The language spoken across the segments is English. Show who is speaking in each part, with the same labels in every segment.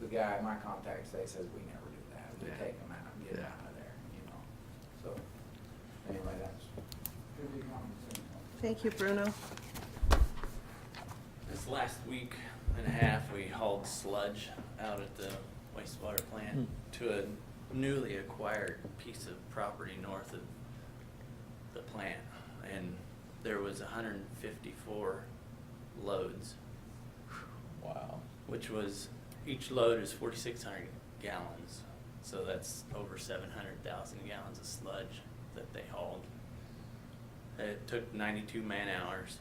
Speaker 1: the guy, my contacts, they says we never do that, we
Speaker 2: Yeah.
Speaker 1: take them out and get them
Speaker 2: Yeah.
Speaker 1: out of there, you know, so, anyway, that's. Could be compensated.
Speaker 3: Thank you, Bruno.
Speaker 4: This last week and a half, we hauled sludge out at the wastewater plant to a newly acquired piece of property north of the plant. And there was hundred and fifty-four loads. Wow. Which was, each load is forty-six hundred gallons, so that's over seven hundred thousand gallons of sludge that they hauled. It took ninety-two man hours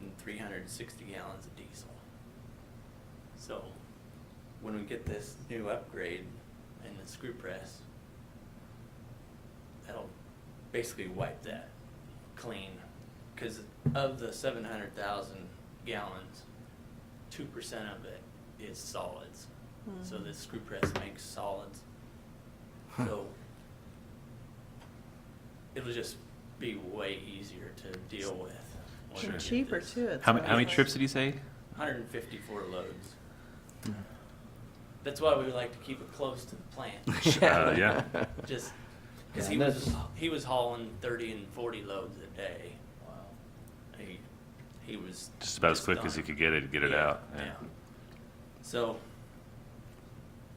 Speaker 4: and three hundred and sixty gallons of diesel. So, when we get this new upgrade and the screw press, that'll basically wipe that clean. Cause of the seven hundred thousand gallons, two percent of it is solids. So
Speaker 3: Mhm.
Speaker 4: this screw press makes solids. So, it'll just be way easier to deal with.
Speaker 3: And
Speaker 4: when we get
Speaker 3: cheaper
Speaker 4: this.
Speaker 3: too.
Speaker 2: How many, how many trips did you say?
Speaker 4: 154 loads. That's why we would like to keep it close to the plant.
Speaker 2: Uh, yeah.
Speaker 4: Just
Speaker 1: Yeah,
Speaker 4: because he
Speaker 1: and
Speaker 4: was
Speaker 1: that's-
Speaker 4: he was hauling 30 and 40 loads a day. Wow. He he was
Speaker 2: Just about as quick as
Speaker 4: done.
Speaker 2: you could get it, get it
Speaker 4: Yeah,
Speaker 2: out. Yeah.
Speaker 4: So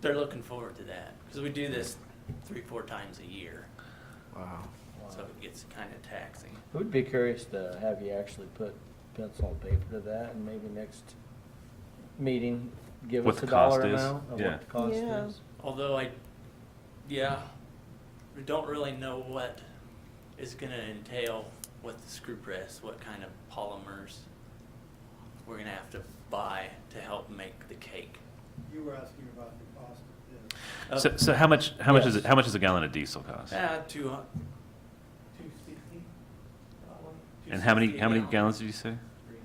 Speaker 4: they're looking forward to that because we do this three four times a year,
Speaker 2: Wow.
Speaker 4: so it gets kind of taxing.
Speaker 5: It would be curious to have you actually put pencil and paper to that, and maybe next meeting, give
Speaker 2: What
Speaker 5: us
Speaker 2: the
Speaker 5: a dollar
Speaker 2: cost is,
Speaker 5: amount of
Speaker 2: yeah.
Speaker 5: what the cost
Speaker 3: Yeah.
Speaker 5: is.
Speaker 4: Although I, yeah, we don't really know what is going to entail with the screw press, what kind of polymers we're going to have to buy to help make the cake.
Speaker 6: You were asking about the cost of this.
Speaker 2: So,
Speaker 4: Up-
Speaker 2: so how much, how much is
Speaker 5: Yes.
Speaker 2: it, how much does a gallon of diesel cost?
Speaker 4: Ah, two hun- 260, probably.
Speaker 2: And how many,
Speaker 4: 260
Speaker 2: how many
Speaker 4: gallon.
Speaker 2: gallons did you say?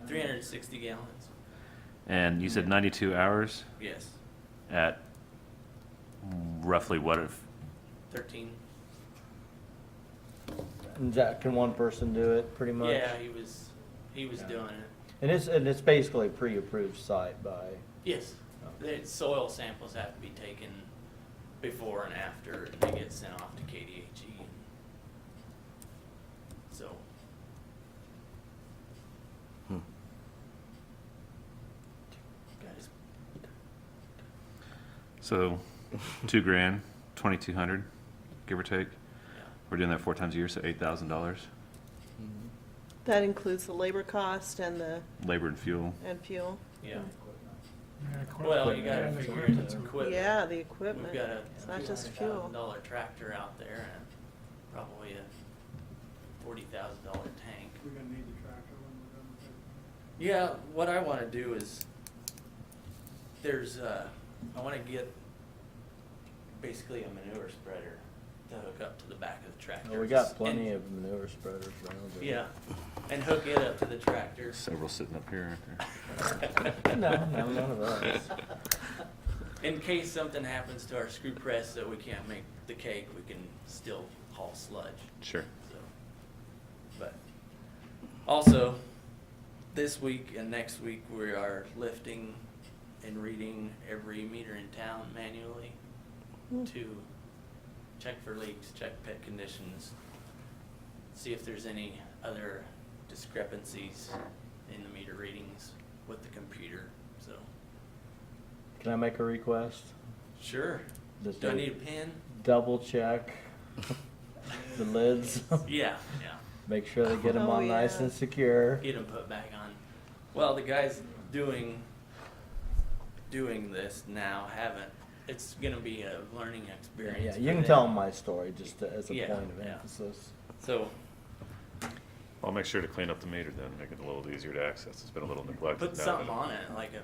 Speaker 4: 360 gallons,
Speaker 2: And you said ninety-two hours
Speaker 4: yes.
Speaker 2: at roughly what if,
Speaker 4: 13.
Speaker 5: And that, can one person do it, pretty much?
Speaker 4: Yeah, he was, he was
Speaker 5: Yeah.
Speaker 4: doing it.
Speaker 5: And it's, and it's basically a pre-approved site by,
Speaker 4: Yes,
Speaker 5: Okay.
Speaker 4: the soil samples have to be taken before and after they get sent off to KDHE. E. So,
Speaker 2: Hmm.
Speaker 4: guys,
Speaker 2: so, two grand, twenty-two hundred, give or take?
Speaker 4: yeah,
Speaker 2: We're doing that four times a year, so eight thousand dollars,
Speaker 1: Mm-hmm.
Speaker 3: That includes the labor cost and the,
Speaker 2: labor and fuel.
Speaker 3: and fuel.
Speaker 4: yeah.
Speaker 7: Equipment.
Speaker 4: Well, you gotta
Speaker 7: And
Speaker 4: figure in
Speaker 7: equipment.
Speaker 4: the equipment.
Speaker 3: Yeah, the
Speaker 4: We've
Speaker 3: equipment.
Speaker 4: got a
Speaker 3: It's
Speaker 4: two
Speaker 3: not
Speaker 4: hundred
Speaker 3: just
Speaker 4: thousand
Speaker 3: fuel.
Speaker 4: dollar tractor out there and probably a forty thousand dollar tank.
Speaker 6: We're gonna need the tractor when we're done with it.
Speaker 4: Yeah, what I want to do is, there's, uh, I want to get basically a manure spreader to hook up to the back of the tractor.
Speaker 5: well, we got
Speaker 4: And-
Speaker 5: plenty of manure spreaders around. there.
Speaker 4: Yeah, and hook it up to the tractor.
Speaker 2: Several sitting up here, aren't there?
Speaker 5: No, no, none of us.
Speaker 4: In case something happens to our screw press that we can't make the cake, we can still haul sludge.
Speaker 2: Sure.
Speaker 4: So, but also, this week and next week we are lifting and reading every meter in town manually
Speaker 3: Hmm.
Speaker 4: to check for leaks, check pit conditions, see if there's any other discrepancies in the meter readings with the computer. So,
Speaker 5: Can I make a request?
Speaker 4: sure.
Speaker 5: Does
Speaker 4: Do I
Speaker 5: it-
Speaker 4: need a pen?
Speaker 5: Double check the lids.
Speaker 4: Yeah, yeah.
Speaker 5: Make sure they get them
Speaker 3: Oh,
Speaker 5: on nice
Speaker 3: yeah.
Speaker 5: and secure.
Speaker 4: get them put back on. Well, the guys doing doing this now haven't. It's gonna be a learning
Speaker 5: Yeah,
Speaker 4: experience.
Speaker 5: yeah,
Speaker 4: for
Speaker 5: you can tell
Speaker 4: them.
Speaker 5: them my story just to- as a
Speaker 4: Yeah,
Speaker 5: point of
Speaker 4: yeah.
Speaker 5: emphasis.
Speaker 4: So,
Speaker 2: I'll make sure to clean up the meter then, make it a little easier to access. It's been a little neglected.
Speaker 4: put
Speaker 2: now,
Speaker 4: something
Speaker 2: but
Speaker 4: on it like a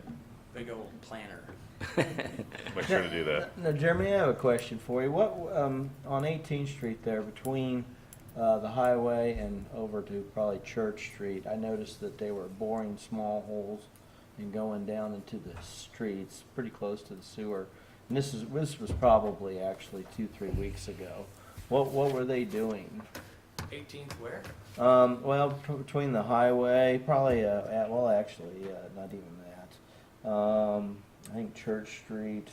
Speaker 4: big old planner.
Speaker 2: Make sure to do that.
Speaker 5: Now, Jeremy, I have a question for you. What, um, on Eighteenth Street there, between, uh, the highway and over to probably Church Street, I noticed that they were boring small holes and going down into the streets, pretty close to the sewer. And this is, this was probably actually two, three weeks ago. What, what were they doing?
Speaker 4: 18th where?
Speaker 5: Um, well, t- between the highway, probably, uh, at, well, actually, uh, not even that. Um, I think Church Street,